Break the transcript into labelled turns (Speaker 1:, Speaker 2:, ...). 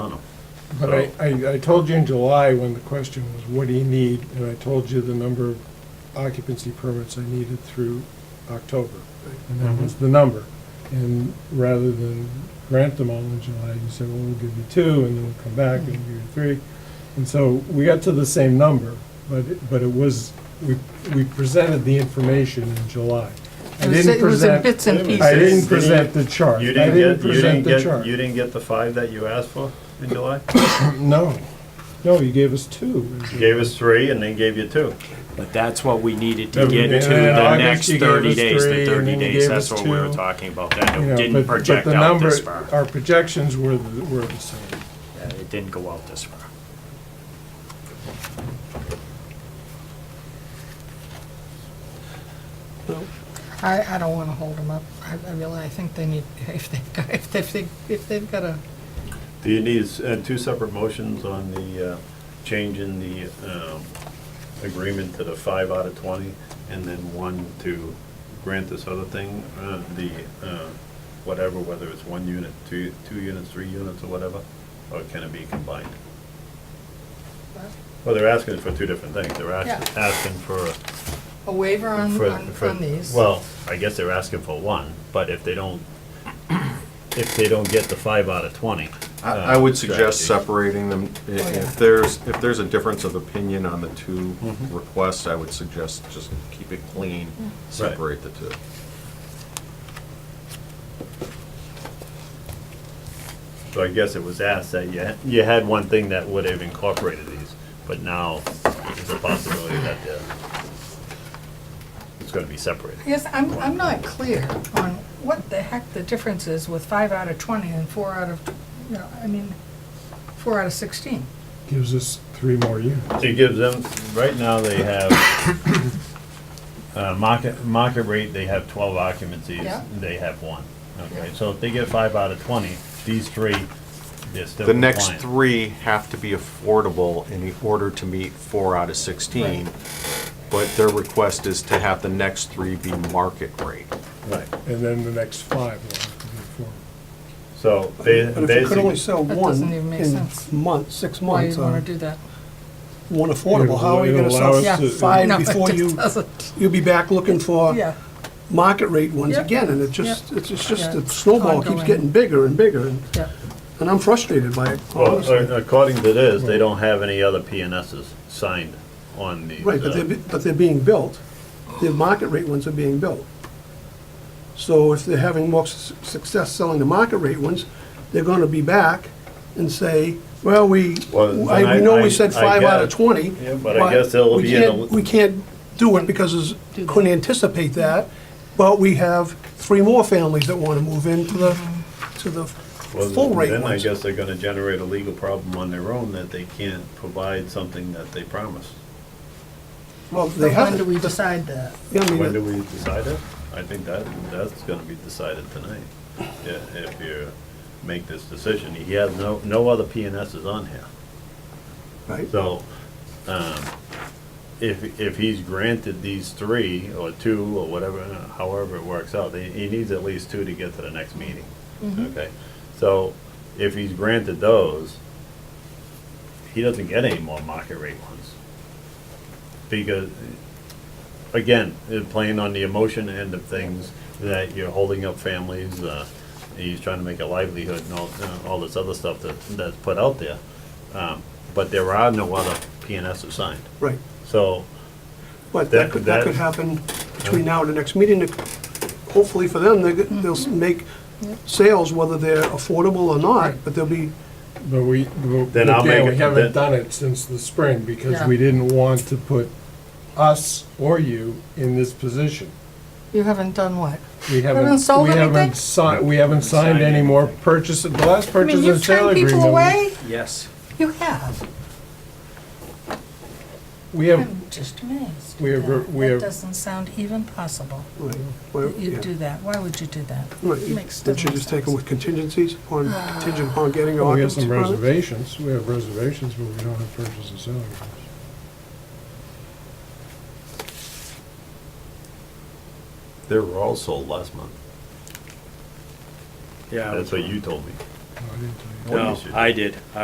Speaker 1: But I, I, I told you in July when the question was, what do you need? And I told you the number of occupancy permits I needed through October. And that
Speaker 2: Mm-hmm.
Speaker 1: was the number. And rather than grant them all in July, you said, well, we'll give you two, and then we'll come back and give you three. And so we got to the same number, but, it- but it was, we, we presented the information in July. I
Speaker 3: It
Speaker 1: didn't
Speaker 3: was- it was in
Speaker 1: present-
Speaker 3: bits and pieces.
Speaker 1: I didn't present the chart.
Speaker 2: You
Speaker 1: I
Speaker 2: didn't get, you
Speaker 1: present
Speaker 2: didn't
Speaker 1: the
Speaker 2: get,
Speaker 1: chart.
Speaker 2: you didn't get the five that you asked for in July?
Speaker 1: No, no, you gave us two.
Speaker 2: You gave us three and they gave you two.
Speaker 4: But that's what we needed to
Speaker 1: Yeah,
Speaker 4: get to
Speaker 1: yeah,
Speaker 4: the
Speaker 1: August
Speaker 4: next
Speaker 1: you gave
Speaker 4: thirty
Speaker 1: us
Speaker 4: days,
Speaker 1: three,
Speaker 4: the
Speaker 1: and
Speaker 4: thirty
Speaker 1: then you gave
Speaker 4: days, that's
Speaker 1: us
Speaker 4: what we were
Speaker 1: two.
Speaker 4: talking about, that
Speaker 1: You
Speaker 4: it
Speaker 1: know,
Speaker 4: didn't
Speaker 1: but- but
Speaker 4: project
Speaker 1: the
Speaker 4: out
Speaker 1: number-
Speaker 4: this far.
Speaker 1: Our projections were, the- were the same.
Speaker 4: Yeah, It didn't go out this far.
Speaker 3: I, I don't want to hold them up. I, I really, I think they need, if they've got, if they've, if they've got a,
Speaker 2: Do you need uh, two separate motions on the uh, change in the um, agreement to the five out of 20? And then one to grant this other thing, uh, the uh, whatever, whether it's one unit, two, two units, three units, or whatever? Or can it be combined? Well, they're asking for two different things. They're ask-
Speaker 3: Yeah.
Speaker 2: asking for
Speaker 3: a waiver on,
Speaker 2: for-
Speaker 3: on,
Speaker 2: for-
Speaker 3: on these.
Speaker 2: Well, I guess they're asking for one, but if they don't, if they don't get the five out of 20.
Speaker 5: I I would suggest
Speaker 2: Uh, strategy.
Speaker 5: separating them. I-
Speaker 3: Oh, yeah.
Speaker 5: If there's, if there's a difference of opinion on the two requests, I would suggest just keep it clean,
Speaker 3: Mm.
Speaker 5: separate the two.
Speaker 2: So I guess it was asked that you, you had one thing that would have incorporated these, but now there's a possibility that they're, it's gonna be separated.
Speaker 3: I guess I'm, I'm not clear on what the heck the difference is with five out of 20 and four out of, you know, I mean, four out of 16.
Speaker 1: Gives us three more years.
Speaker 2: It gives them, right now they have, uh, market, market rate, they have twelve occupancies,
Speaker 3: Yeah.
Speaker 2: they have one. Okay, so if they get five out of twenty, these three, they're still
Speaker 5: The next
Speaker 2: compliant.
Speaker 5: three have to be affordable in order to meet four out of 16, but their request is to have the next three be market rate.
Speaker 2: Right,
Speaker 1: And then the next five will have to be four.
Speaker 2: so they,
Speaker 6: But if you could only
Speaker 2: basically,
Speaker 6: sell
Speaker 3: That
Speaker 6: one
Speaker 3: doesn't even make
Speaker 6: in
Speaker 3: sense.
Speaker 6: months, six
Speaker 3: Why you
Speaker 6: months,
Speaker 3: want
Speaker 6: on
Speaker 3: to do that?
Speaker 6: one affordable, how are you
Speaker 1: It'll
Speaker 6: gonna
Speaker 1: allow us
Speaker 6: sell
Speaker 3: Yeah.
Speaker 1: to-
Speaker 6: five
Speaker 3: No, it
Speaker 6: before
Speaker 3: just
Speaker 6: you,
Speaker 3: doesn't.
Speaker 6: you'll be back looking for
Speaker 3: Yeah,
Speaker 6: market rate ones
Speaker 3: Yeah.
Speaker 6: again, and it just, it's it's just,
Speaker 3: Yeah.
Speaker 6: the snowball keeps
Speaker 3: Ongoing.
Speaker 6: getting bigger and bigger, and-
Speaker 3: yeah.
Speaker 6: and I'm frustrated by it,
Speaker 2: well,
Speaker 6: honestly.
Speaker 2: a- according to this, they don't have any other PNSs signed on these.
Speaker 6: Right, but
Speaker 2: uh,
Speaker 6: they're, be- but they're being built. The market rate ones are being built. So if they're having more su- success selling the market rate ones, they're gonna be back and say, well, we,
Speaker 2: Well,
Speaker 6: I,
Speaker 2: then
Speaker 6: we know
Speaker 2: I- I-
Speaker 6: we said
Speaker 2: I
Speaker 6: five out of
Speaker 2: guess-
Speaker 6: twenty.
Speaker 2: Yeah, but I guess they'll
Speaker 6: we
Speaker 2: be in a-
Speaker 6: can't- We can't do it because it's, couldn't anticipate that, but we have three more families that wanna move into the, to the
Speaker 2: Well,
Speaker 6: full rate
Speaker 2: Then I
Speaker 6: ones.
Speaker 2: guess they're gonna generate a legal problem on their own that they can't provide something that they promised.
Speaker 6: Well,
Speaker 3: So
Speaker 6: they
Speaker 3: when
Speaker 6: have,
Speaker 3: do we decide that?
Speaker 6: yeah, I
Speaker 2: When do
Speaker 6: mean,
Speaker 2: we decide it? I think that, that's gonna be decided tonight, Yeah, if you make this decision. He has no, no other PNSs on here.
Speaker 6: right,
Speaker 2: So, um, if, if he's granted these three, or two, or whatever, however it works out, he, he needs at least two to get to the next meeting. Okay, so if he's granted those, he doesn't get any more market rate ones. Because, again, it- playing on the emotion end of things, that you're holding up families, uh, he's trying to make a livelihood and all, uh, all this other stuff that, that's put out there. Um, But there are no other PNS assigned.
Speaker 6: right.
Speaker 2: So,
Speaker 6: But
Speaker 2: That-
Speaker 6: that could, that could
Speaker 2: that-
Speaker 6: happen between now and the next meeting. Hopefully for them, they- they'll
Speaker 3: Mm-hmm.
Speaker 6: s- make sales, whether they're affordable or not, but they'll be,
Speaker 1: But we, but
Speaker 2: Then I'll
Speaker 1: again,
Speaker 2: make
Speaker 1: we
Speaker 2: it-
Speaker 1: haven't
Speaker 2: then-
Speaker 1: done it since the spring because
Speaker 3: Yeah.
Speaker 1: we didn't want to put us or you in this position.
Speaker 3: You haven't done what?
Speaker 1: We haven't,
Speaker 3: sold
Speaker 1: we
Speaker 3: anything?
Speaker 1: haven't signed, we haven't signed any more purchase, the last
Speaker 3: I mean,
Speaker 1: purchase
Speaker 3: you've
Speaker 1: and sale
Speaker 3: turned
Speaker 1: agreement.
Speaker 3: people away?
Speaker 4: Yes.
Speaker 3: You have.
Speaker 1: We have,
Speaker 3: I'm just amazed.
Speaker 1: We have-
Speaker 3: That-
Speaker 1: we
Speaker 3: That
Speaker 1: have-
Speaker 3: doesn't sound even possible.
Speaker 6: right, well,
Speaker 3: that
Speaker 6: yeah.
Speaker 3: You'd do that. Why would you do that?
Speaker 6: Right, you-
Speaker 3: Makes-
Speaker 6: Don't you
Speaker 3: doesn't
Speaker 6: just
Speaker 3: make
Speaker 6: take them
Speaker 3: sense.
Speaker 6: with contingencies upon, contingent upon getting an
Speaker 1: we have
Speaker 6: occupancy
Speaker 1: some
Speaker 6: permit?
Speaker 1: reservations, we have reservations, but we don't have purchase and sale agreements.
Speaker 2: they were all sold last month.
Speaker 4: Yeah.
Speaker 2: That's what you told me.
Speaker 1: No, I didn't tell you.
Speaker 2: Well, you should-
Speaker 4: I did.